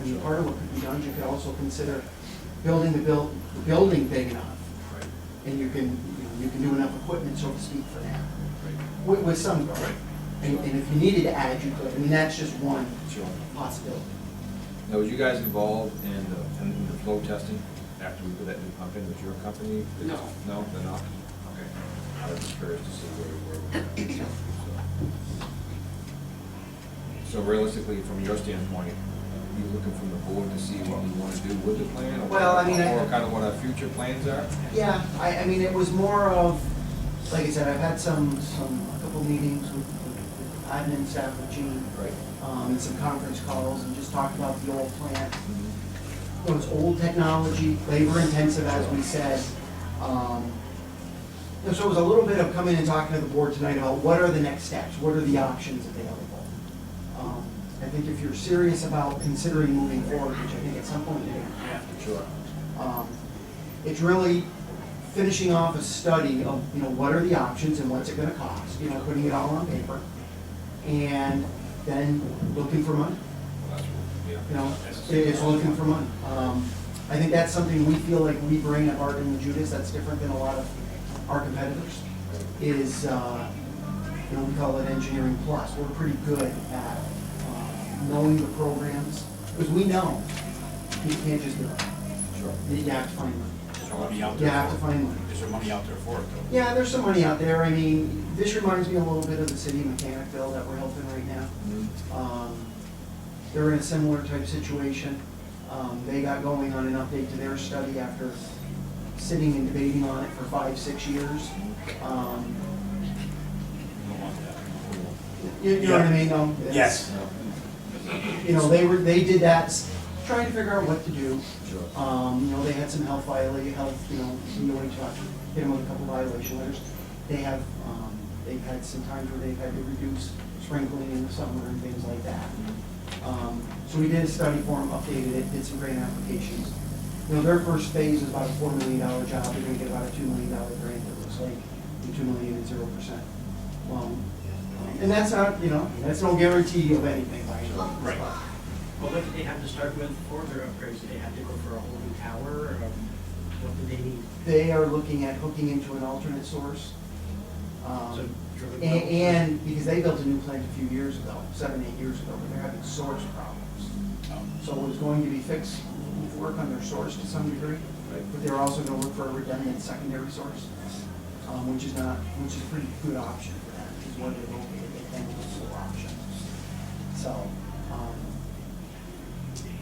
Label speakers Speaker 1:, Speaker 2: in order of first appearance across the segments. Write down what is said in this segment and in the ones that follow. Speaker 1: and part of what could be done, you could also consider building the buil, the building big enough,
Speaker 2: Right,
Speaker 1: and you can, you know, you can do enough equipment, so to speak, for that,
Speaker 2: right,
Speaker 1: with, with some growth.
Speaker 2: Right.
Speaker 1: And, and if you needed to add, you could, and that's just one
Speaker 2: sure.
Speaker 1: possibility.
Speaker 2: Now, was you guys involved in the, in the flow testing after we put that new pump in, was your company?
Speaker 1: No.
Speaker 2: No, they're not? Okay. I was just curious to see where, where we were. at, so. So realistically, from your standpoint, you looking from the board to see what we wanna do with the plan? or-
Speaker 1: Well, I mean, I-
Speaker 2: Or kind of what our future plans are?
Speaker 1: Yeah, I, I mean, it was more of, like I said, I've had some, some, a couple meetings with with admin staff with Gene,
Speaker 2: Right.
Speaker 1: um, and some conference calls, and just talked about the old plant,
Speaker 2: Mm-hmm.
Speaker 1: Well, it's old technology, labor intensive, as we said. Um, and So it was a little bit of coming and talking to the board tonight about what are the next steps, what are the options available? Um, I think if you're serious about considering moving forward, which I think at some point you're gonna have to,
Speaker 2: Sure.
Speaker 1: um, It's really finishing off a study of, you know, what are the options and what's it gonna cost, you know, putting it all on paper. And then looking for money
Speaker 2: Well, that's, yeah.
Speaker 1: you know, it is looking for money. Um, I think that's something we feel like we bring at Barton and Judas, that's different than a lot of our competitors, is, uh, you know, we call it engineering plus. We're pretty good at uh, knowing the programs, because we know you can't just do it.
Speaker 2: Sure.
Speaker 1: You have to find money.
Speaker 3: Is there money out
Speaker 1: You
Speaker 3: there
Speaker 1: have to
Speaker 3: for
Speaker 1: find money.
Speaker 3: it? Is there money out there for it, though?
Speaker 1: Yeah, there's some money out there. I mean, this reminds me a little bit of the city mechanic bill that we're helping right now.
Speaker 2: Mhm.
Speaker 1: Um, They're in a similar type situation. Um, They got going on an update to their study after sitting and debating on it for five, six years. Um,
Speaker 3: You don't want that.
Speaker 1: You you know what I mean? Um, it's-
Speaker 3: Yes.
Speaker 2: No,
Speaker 1: You know, they were, they did that, s- trying to figure out what to do.
Speaker 2: Sure.
Speaker 1: Um, you know, they had some health violation, health, you know, really tough, hit them with a couple violation letters. They have, um, they've had some times where they've had to reduce sprinkling in the summer and things like that. Um, so we did a study for them, updated it, did some grant applications. You know, their first phase is about a four million dollar job, they're gonna get about a two million dollar grant, it looks like, and two million and zero percent. Um, and that's not, you know, that's no guarantee of anything by any means.
Speaker 3: Right.
Speaker 4: Well, what did they have to start with for their upgrades? Did they have to go for a whole new tower or um, what did they need?
Speaker 1: They are looking at hooking into an alternate source. Um,
Speaker 4: So, drilling
Speaker 1: a- And, because they built a new plant a few years ago, seven, eight years ago, but they're having source problems.
Speaker 3: Um,
Speaker 1: So it was going to be fixed, work on their source to some degree,
Speaker 2: Right.
Speaker 1: but they're also gonna look for a redundant secondary source, um, which is not, which is a pretty good option for that, is what they're looking at, they think is a option. So, um,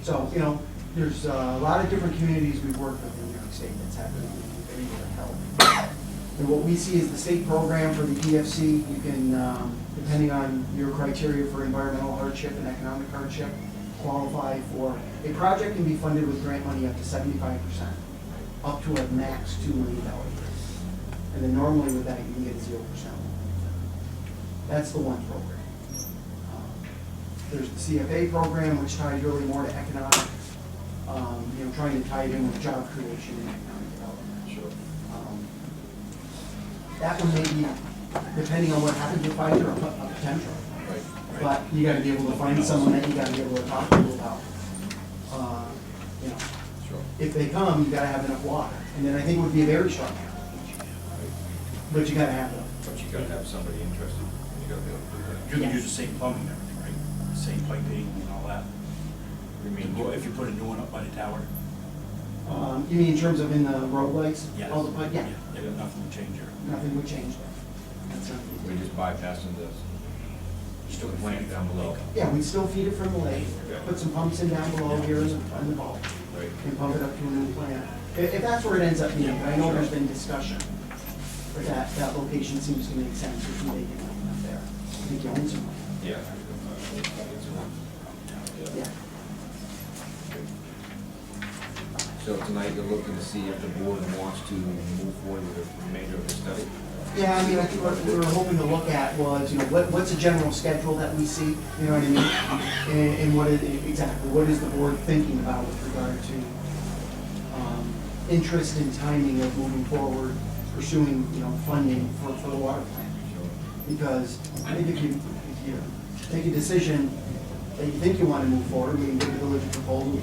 Speaker 1: so, you know, there's uh, a lot of different communities we've worked with in New York State that's happening every year help. And what we see is the state program for the EFC, you can, um, depending on your criteria for environmental hardship and economic hardship, qualify for, a project can be funded with grant money up to seventy-five percent, up to a max two million dollar grant. And then normally with that, you can get zero percent. That's the one program. Um, there's the CFA program, which ties really more to economic, um, you know, trying to tie it in with job creation and economic development.
Speaker 2: Sure.
Speaker 1: Um, That one may be, depending on what happens with Pfizer, a pot- a potential.
Speaker 2: Right.
Speaker 1: But you gotta be able to find someone that you gotta be able to talk to about, uh, you know,
Speaker 2: Sure.
Speaker 1: if they come, you gotta have enough water. And then I think it would be a very strong application, but you gotta have them.
Speaker 2: But you gotta have somebody interested, and you gotta be able to do that.
Speaker 3: You're gonna
Speaker 1: Yeah.
Speaker 3: use the same plumbing and everything, right? Same piping and all that?
Speaker 2: You
Speaker 3: I mean,
Speaker 2: mean,
Speaker 3: well, if you put a new one up by the tower?
Speaker 1: Um, you mean in terms of in the road lights?
Speaker 3: yes.
Speaker 1: All Oh, the, but yeah,
Speaker 3: Yeah, nothing would change there.
Speaker 1: nothing would change that. That's not.
Speaker 2: we just bypassing this, just put a plant down below,
Speaker 1: Yeah, we'd still feed it from the lake, put some pumps in down below here and on the ball,
Speaker 2: right?
Speaker 1: and pump it up to a new plant. If, if that's where it ends up being, but I know there's been discussion, but that, that location seems to make sense if you make it up there. I think you own some, land.
Speaker 2: Yeah.
Speaker 1: yeah.
Speaker 2: So tonight you're looking to see if the board wants to move forward with the remainder of the study?
Speaker 1: Yeah, I mean, I think what we were hoping to look at was, you know, what, what's a general schedule that we see, you know what I mean? And, and what is, exactly, what is the board thinking about with regard to, um, interest and timing of moving forward, pursuing, you know, funding for, for the water plant?
Speaker 2: Sure.
Speaker 1: Because I think if you, if you make a decision that you think you wanna move forward, we can give the village a proposal,